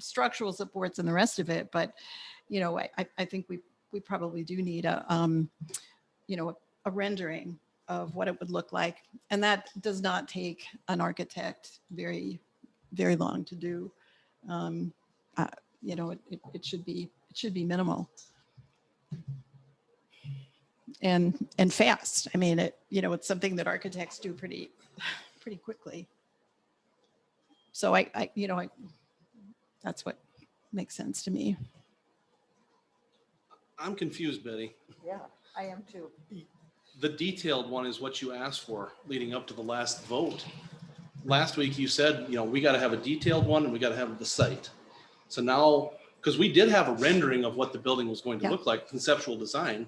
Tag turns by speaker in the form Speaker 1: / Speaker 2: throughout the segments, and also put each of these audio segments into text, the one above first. Speaker 1: structural supports and the rest of it. But, you know, I, I- I think we, we probably do need a, um, you know, a rendering of what it would look like. And that does not take an architect very, very long to do. Um, uh, You know, it, it- it should be, it should be minimal. And, and fast. I mean, it, you know, it's something that architects do pretty, pretty quickly. So I, I, you know, I, that's what makes sense to me.
Speaker 2: I'm confused, Betty.
Speaker 3: Yeah, I am too.
Speaker 2: The detailed one is what you asked for leading up to the last vote. Last week you said, you know, we got to have a detailed one and we got to have the site. So now, because we did have a rendering of what the building was going to
Speaker 1: Yeah.
Speaker 2: look like, conceptual design.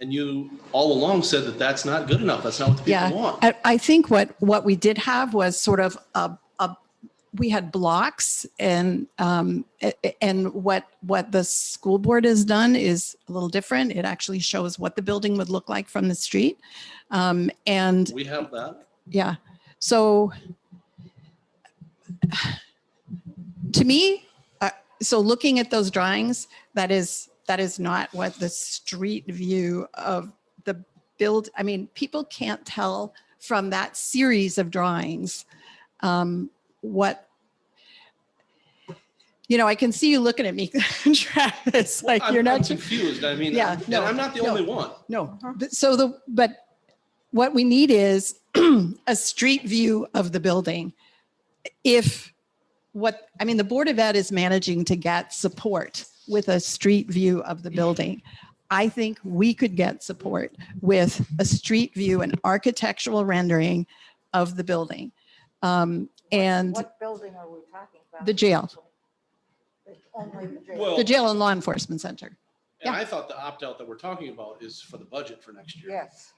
Speaker 2: And you all along said that that's not good enough. That's not what the
Speaker 1: Yeah.
Speaker 2: people want.
Speaker 1: I, I think what, what we did have was sort of a, a we had blocks and, um, a- a- and what, what the school board has done is a little different. It actually shows what the building would look like from the street. Um, and
Speaker 2: We have that.
Speaker 1: Yeah. So to me, uh, so looking at those drawings, that is, that is not what the street view of the build, I mean, people can't tell from that series of drawings um, what, you know, I can see you looking at me, Travis, like
Speaker 2: I'm-
Speaker 1: you're
Speaker 2: I'm
Speaker 1: not,
Speaker 2: confused. I mean,
Speaker 1: Yeah,
Speaker 2: and
Speaker 1: no,
Speaker 2: I'm not the
Speaker 1: no.
Speaker 2: only one.
Speaker 1: no, but- so the, but what we need is a street view of the building. If what, I mean, the Board of Ed is managing to get support with a street view of the building. I think we could get support with a street view and architectural rendering of the building. Um, And
Speaker 3: What building are we talking about?
Speaker 1: The jail.
Speaker 3: Only the jail.
Speaker 2: Well-
Speaker 1: the jail and law enforcement center.
Speaker 2: And
Speaker 1: Yeah.
Speaker 2: I thought the opt-out that we're talking about is for the budget for next year.
Speaker 3: Yes.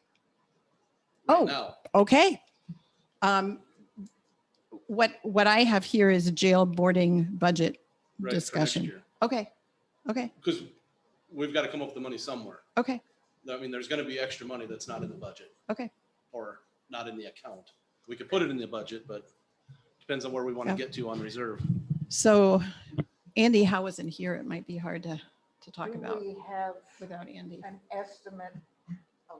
Speaker 2: right
Speaker 1: Oh.
Speaker 2: Now.
Speaker 1: Okay. Um, What, what I have here is jail boarding budget
Speaker 2: right, for next
Speaker 1: discussion.
Speaker 2: year.
Speaker 1: Okay, okay,
Speaker 2: Because we've got to come up with the money somewhere.
Speaker 1: okay,
Speaker 2: I mean, there's going to be extra money that's not in the budget
Speaker 1: okay.
Speaker 2: or not in the account. We could put it in the budget, but depends on where we want to
Speaker 1: Yeah.
Speaker 2: get to on reserve.
Speaker 1: So Andy Howe isn't here. It might be hard to, to talk
Speaker 3: Do
Speaker 1: about
Speaker 3: We have
Speaker 1: without Andy.
Speaker 3: an estimate of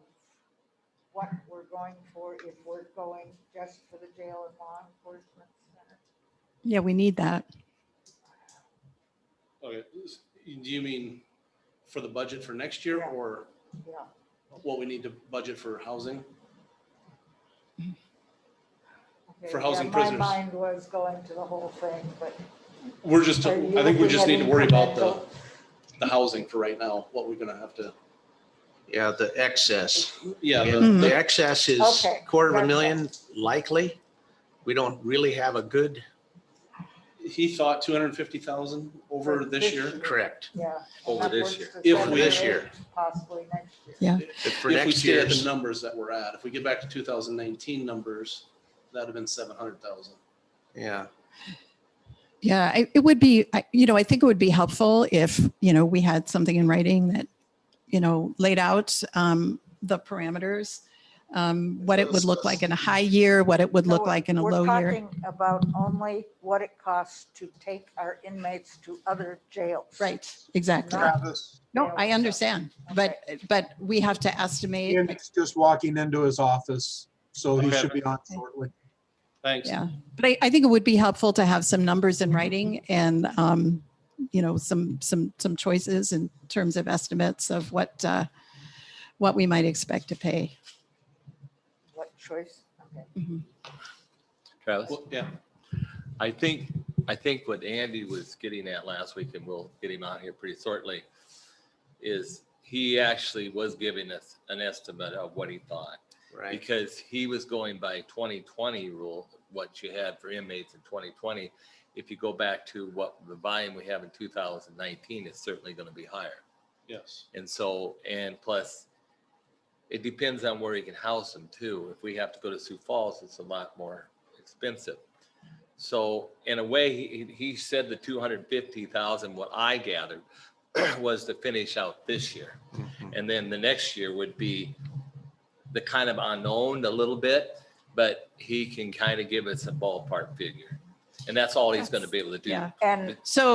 Speaker 3: what we're going for if we're going just for the jail and law enforcement center.
Speaker 1: Yeah, we need that.
Speaker 2: Okay, s- do you mean for the budget for next year
Speaker 3: Yeah.
Speaker 2: or
Speaker 3: Yeah.
Speaker 2: what we need to budget for housing?
Speaker 3: okay,
Speaker 2: For
Speaker 3: yeah,
Speaker 2: housing prisoners.
Speaker 3: My mind was going to the whole thing, but.
Speaker 2: We're just,
Speaker 3: are you
Speaker 2: I think we
Speaker 3: looking
Speaker 2: just
Speaker 3: at
Speaker 2: need to worry about the,
Speaker 3: incremental?
Speaker 2: the housing for right now, what we're going to have to,
Speaker 4: Yeah, the excess.
Speaker 2: yeah, the-
Speaker 1: Mhm.
Speaker 3: Mm-hmm.
Speaker 4: The excess is
Speaker 3: Okay,
Speaker 4: quarter of
Speaker 3: gotcha.
Speaker 4: a million likely. We don't really have a good,
Speaker 2: he thought 250,000 over
Speaker 3: For
Speaker 2: this
Speaker 3: this
Speaker 2: year.
Speaker 3: year.
Speaker 4: correct,
Speaker 3: Yeah.
Speaker 5: Over this
Speaker 3: upwards
Speaker 5: year.
Speaker 3: to
Speaker 2: If we-
Speaker 4: this
Speaker 3: 78,
Speaker 4: year.
Speaker 3: Possibly next year.
Speaker 4: But for
Speaker 2: If we
Speaker 4: next
Speaker 2: stay at the
Speaker 4: year's,
Speaker 2: numbers that we're at, if we get back to 2019 numbers, that'd have been 700,000.
Speaker 4: yeah.
Speaker 1: Yeah, I- it would be, I- you know, I think it would be helpful if, you know, we had something in writing that, you know, laid out um, the parameters, um, what it would look like in a high year, what it would
Speaker 3: No,
Speaker 1: look like in a
Speaker 3: we're
Speaker 1: low year.
Speaker 3: talking About only what it costs to take our inmates to other jails.
Speaker 1: Right, exactly.
Speaker 3: Not-
Speaker 6: Travis,
Speaker 1: No, I understand, but, but we have to estimate.
Speaker 6: Andy's just walking into his office, so he
Speaker 2: Okay.
Speaker 6: should be on shortly.
Speaker 2: Thanks.
Speaker 1: Yeah, but I, I think it would be helpful to have some numbers in writing and, um, you know, some, some, some choices in terms of estimates of what, uh, what we might expect to pay.
Speaker 3: What choice? Okay.
Speaker 5: Travis?
Speaker 2: Well, Yeah,
Speaker 5: I think, I think what Andy was getting at last week, and we'll get him out here pretty shortly, is he actually was giving us an estimate of what he thought.
Speaker 4: Right.
Speaker 5: Because he was going by 2020 rule, what you had for inmates in 2020. If you go back to what the volume we have in 2019, it's certainly going to be higher.
Speaker 2: yes.
Speaker 5: And so, and plus, it depends on where you can house them too. If we have to go to Sioux Falls, it's a lot more expensive. So in a way, he, he said the two hundred and fifty thousand, what I gathered, was to finish out this year.
Speaker 4: Mhm.
Speaker 5: And then the next year would be the kind of unknown a little bit, but he can kind of give us a ballpark figure. And that's all he's going to be able to do.
Speaker 1: Yeah.
Speaker 3: And
Speaker 1: So